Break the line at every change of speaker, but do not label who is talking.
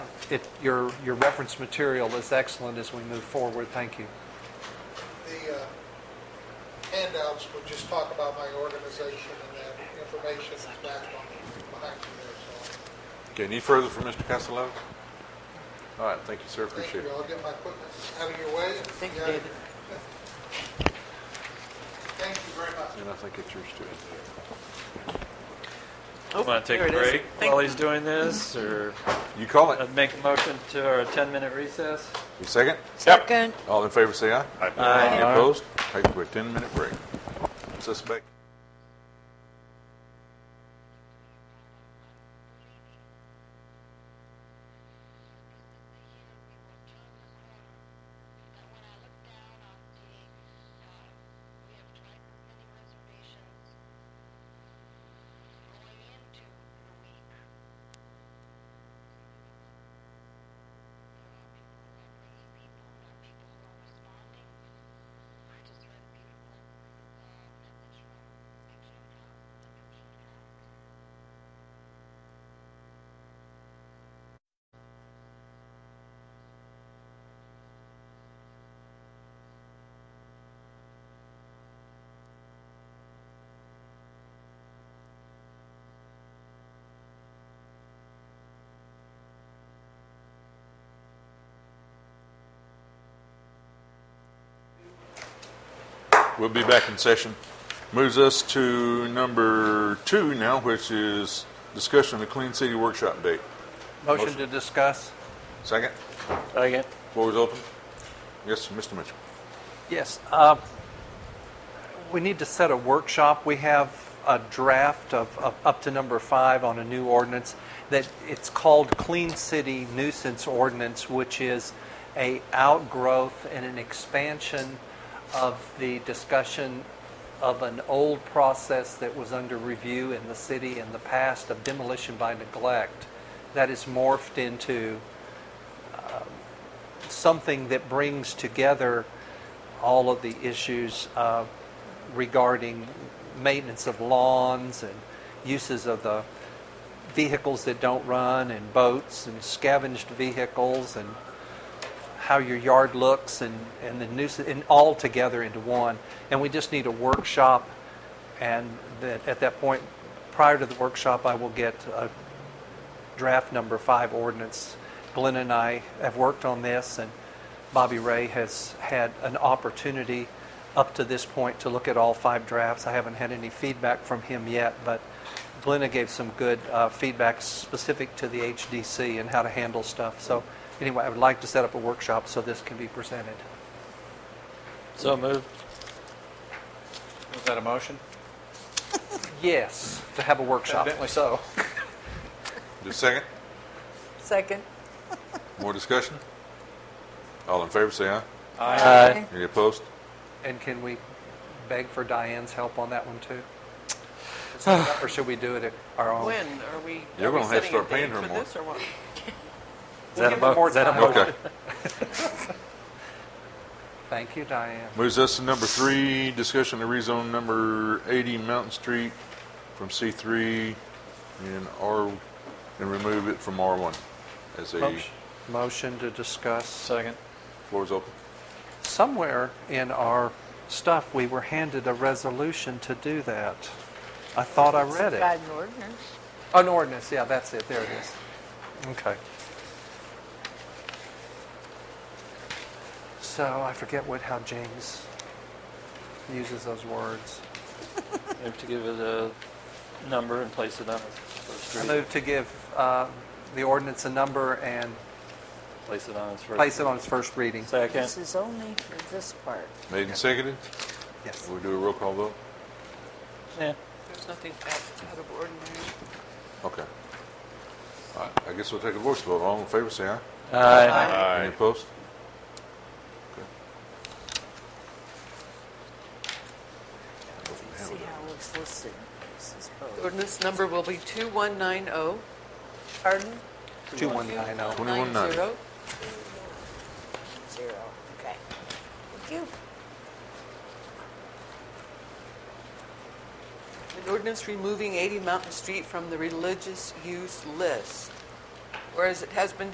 it, your, your reference material is excellent as we move forward. Thank you.
The uh, handouts would just talk about my organization and that information is back on behind you there, so.
Okay, any further from Mr. Castellano? All right, thank you, sir,
Thank
appreciate
you,
it.
I'll get my equipment out of your way.
Thank you,
Yeah.
David.
Thank you very much.
And I think it's yours too.
Oh,
Want to take
there
a
it is.
break
Thank-
while he's doing this, or
You call it.
I'd make a motion to our 10-minute recess?
You second?
Second.
All in favor, say aye.
Aye.
Any opposed? Take a 10-minute break. Suspect.
when I look down on the, uh, we have tried many reservations going into the week. People are not bringing people, not people who are responding. I just read a beautiful, uh, message from the King House, the King House.
We'll be back in session. Moves us to number two now, which is discussion of the Clean City Workshop date.
Motion to discuss?
Second?
Second.
Floor is open. Yes, Mr. Mitchell.
Yes. uh, We need to set a workshop. We have a draft of, of up to number five on a new ordinance that it's called Clean City Nuisance Ordinance, which is a outgrowth and an expansion of the discussion of an old process that was under review in the city in the past of demolition by neglect that is morphed into something that brings together all of the issues uh, regarding maintenance of lawns and uses of the vehicles that don't run and boats and scavenged vehicles and how your yard looks and, and the nuisance and all together into one. And we just need a workshop and that at that point prior to the workshop I will get a draft number five ordinance. Glenn and I have worked on this, and Bobby Ray has had an opportunity up to this point to look at all five drafts. I haven't had any feedback from him yet, but Glenna gave some good uh, feedback specific to the HDC and how to handle stuff. So anyway, I would like to set up a workshop so this can be presented.
So moved. Was that a motion?
Yes, to have a workshop.
so.
Just second?
Second.
More discussion? All in favor, say aye.
Aye.
Any opposed?
And can we beg for Diane's help on that one too? Is that enough, Or should we do it at our own?
When are we?
You're
are we
gonna have to
setting a
start paying
date
her
for
more.
this or what?
Is
We'll
that a
give it more
mo- is that a
time.
Okay.
Thank you, Diane.
Moves us to number three, discussion to rezone number 80 Mountain Street from C3 and R, and remove it from R1 as a,
Motion- Motion to discuss.
Second.
floor is open.
Somewhere in our stuff, we were handed a resolution to do that. I thought I read it.
Got an ordinance.
An ordinance, yeah, that's it, there it is. Okay. So I forget what, how James uses those words.
We have to give it a number and place it on the first
I
reading.
move to give uh, the ordinance a number and
Place it on its first.
place it on its first reading.
Second.
This is only for this part.
Made and seconded.
Yes.
We'll do a roll call vote.
Yeah.
There's nothing out out of ordinary.
Okay. All right, I guess we'll take a voice vote. All in favor, say aye.
Aye.
Any opposed? Okay.
See how it's listed. This is oh, both.
Ordinance number will be 2190. Pardon?
2190.
oh. 2190.
oh.
2190.
Zero. Okay. Thank you.
An ordinance removing 80 Mountain Street from the religious use list. Whereas it has been